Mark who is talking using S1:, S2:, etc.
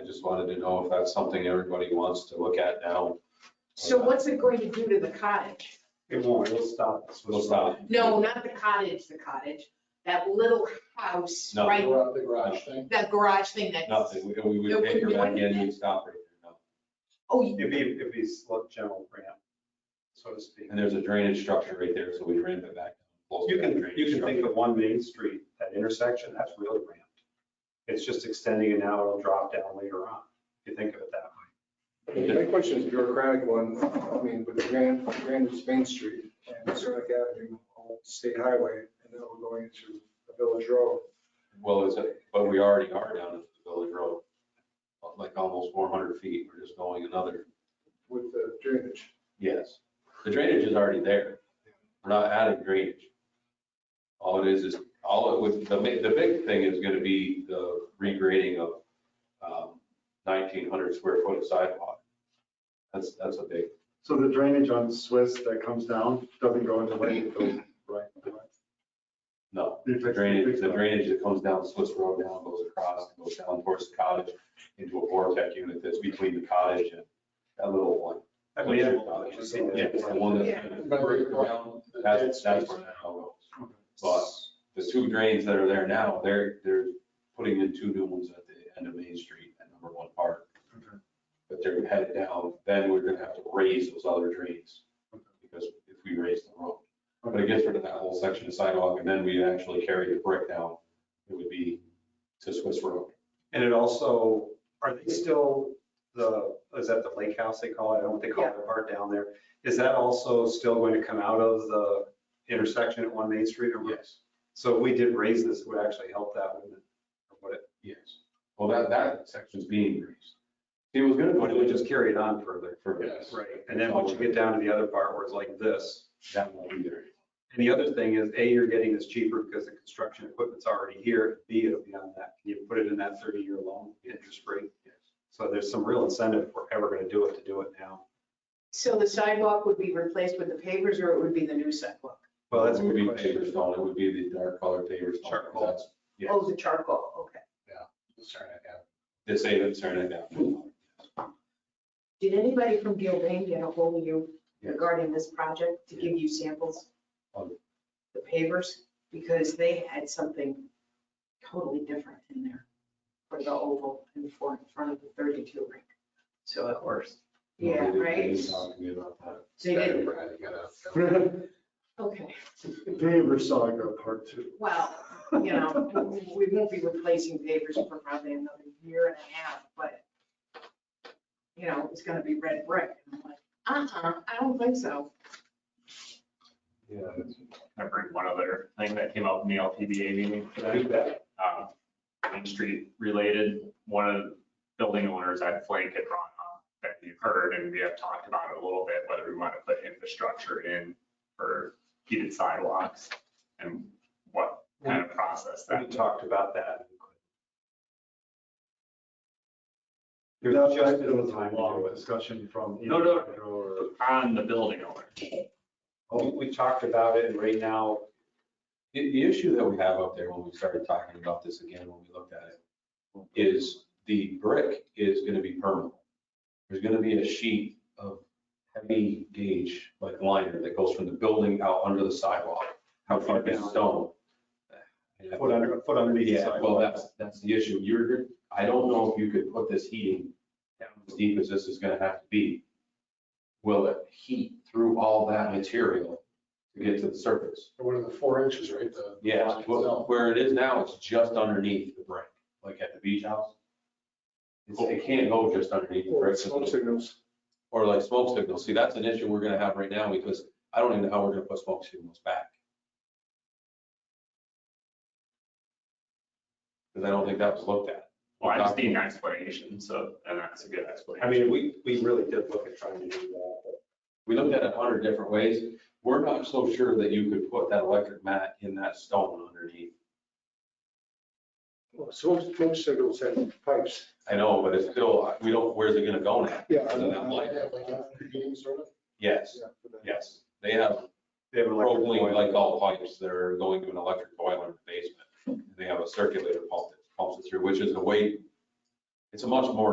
S1: just wanted to know if that's something everybody wants to look at now.
S2: So what's it going to do to the cottage?
S3: It won't, it'll stop. us.
S1: We'll stop.
S2: No, not the cottage, the cottage, that little house,
S1: No.
S2: right?
S4: Garage- The garage thing.
S2: That garage thing that's.
S1: Nothing. We- We would take her back in, we'd stop right there. no.
S2: Oh, you-
S3: It'd be, it'd be slow, gentle ramp, so to speak.
S1: And there's a drainage structure right there, so we ramp it back. Close
S3: You
S1: that
S3: can,
S1: drainage
S3: you can think
S1: structure.
S3: of one main street, that intersection, that's really ramped. It's just extending it now, it'll drop down later on, if you think of it that way.
S4: My question is a bureaucratic one. I mean, with Grand, Grand is Main Street and Zurich Avenue, all State Highway, and then we're going into the Village Road.
S1: Well, it's, but we already are down at the village road, like almost four hundred feet. We're just going another.
S4: with the drainage.
S1: Yes. The drainage is already there. We're not adding drainage. All it is is, all it would, the, ma- the big thing is gonna be the regrading of, um, nineteen hundred square foot of sidewalk. That's, that's a big,
S5: So the drainage on Swiss that comes down doesn't go into Lake, it goes right.
S1: no. The drainage, the drainage that comes down Swiss Road down, goes across, goes down towards the cottage into a vortex unit that's between the cottage and that little one.
S3: I believe it-
S1: Cottage.
S3: you see that?
S1: Yeah, it's the one
S2: Yeah.
S1: that, that's, that's where that all goes. But the two drains that are there now, they're, they're putting in two new ones at the end of Main Street at number one park.
S5: Okay.
S1: But they're headed down, then we're gonna have to raise those other drains because if we raise the road. But it gets rid of that whole section of sidewalk and then we actually carry the brick down. It would be to Swiss Road.
S3: And it also, are they still the, is that the lake house they call it? I don't know what they call that part down there. Is that also still going to come out of the intersection at One Main Street or?
S1: Yes.
S3: So if we did raise this, it would actually help that, wouldn't it? Or would it?
S1: Yes. Well, that, that section's being raised. He was gonna put
S3: But it would
S1: it
S3: just carry it on further.
S1: for,
S4: Yes.
S3: Right. And then once you get down to the other part where it's like this.
S1: that won't be there.
S3: And the other thing is, A, you're getting this cheaper because the construction equipment's already here. B, it'll be on that, you put it in that 30-year loan interest rate. So there's some real incentive if we're ever going to do it, to do it now.
S2: so the sidewalk would be replaced with the pavers or it would be the new sidewalk?
S3: Well, that's a
S1: It would
S3: good
S1: be
S3: question.
S1: paver stone. It would be the dark colored paver stone.
S3: Charcoal.
S1: That's- Yes.
S2: Oh, the charcoal, okay.
S1: They say that's turning
S2: Hmm.
S1: down.
S2: Did anybody from Gilbane get a hold of you regarding this project to give you samples?
S1: Um.
S2: The pavers, because they had something totally different in there for the oval and for in front of the thirty-two rink. So it works. Yeah,
S1: Nobody did- they
S2: right?
S1: didn't talk to me about that.
S2: They did,
S5: Pavers
S2: okay,
S5: saga part two.
S2: well, you know, we won't be replacing pavers for probably another year and a half, but you know, it's gonna be red brick. And I'm like, uh-uh, I don't think so.
S6: I heard one other thing that came up in the LPBA meeting today, uh, Main Street related. One of the building owners at Flake had brought up that you've heard, and we have talked about it a little bit, whether we want to put infrastructure in for heated sidewalks and what kind of process
S3: We
S6: that.
S3: talked about that. It was just
S5: That
S3: in the
S5: was
S3: time
S5: a
S3: to
S5: long
S3: do it.
S5: discussion from.
S6: No, no.
S5: Andrew or-
S6: On the building owner.
S3: We we talked about it and right now,
S1: The, the issue that we have up there when we started talking about this again, when we looked at it, is the brick is gonna be permanent. There's gonna be a sheet of heavy gauge, like liner, that goes from the building out under the sidewalk. How far down stone?
S3: a foot under, a foot underneath the
S1: Yeah, well,
S3: sidewalk.
S1: that's, that's the issue. You're, I don't know if you could put this heating down as deep as this is gonna have to be. Will it heat through all that material to get to the surface?
S4: What are the four inches, right? The-
S1: Yeah, well, where it is now, it's just underneath the brick, like at the beach house. It's- It can't go just underneath the
S4: Or
S1: brick,
S4: it's smoke signals.
S1: or like smoke signals. See, that's an issue we're gonna have right now because I don't even know how we're gonna put smoke signals back. Because I don't think that was looked at.
S6: Well, I just need an explanation, so, and that's a good explanation.
S3: I mean, we, we really did look at trying to do that. but
S1: We looked at it a hundred different ways. We're not so sure that you could put that electric mat in that stone underneath.
S4: Well, Smoke, smoke signals and pipes.
S1: I know, but it's still, we don't, where's it gonna go now?
S4: Yeah.
S1: Other than light. Yes, yes. They have
S3: They have an electric
S1: propylene
S3: boiler.
S1: glycol pipes that are going to an electric boiler in the basement. They have a circulator pump that pumps it through, which is a way, it's a much more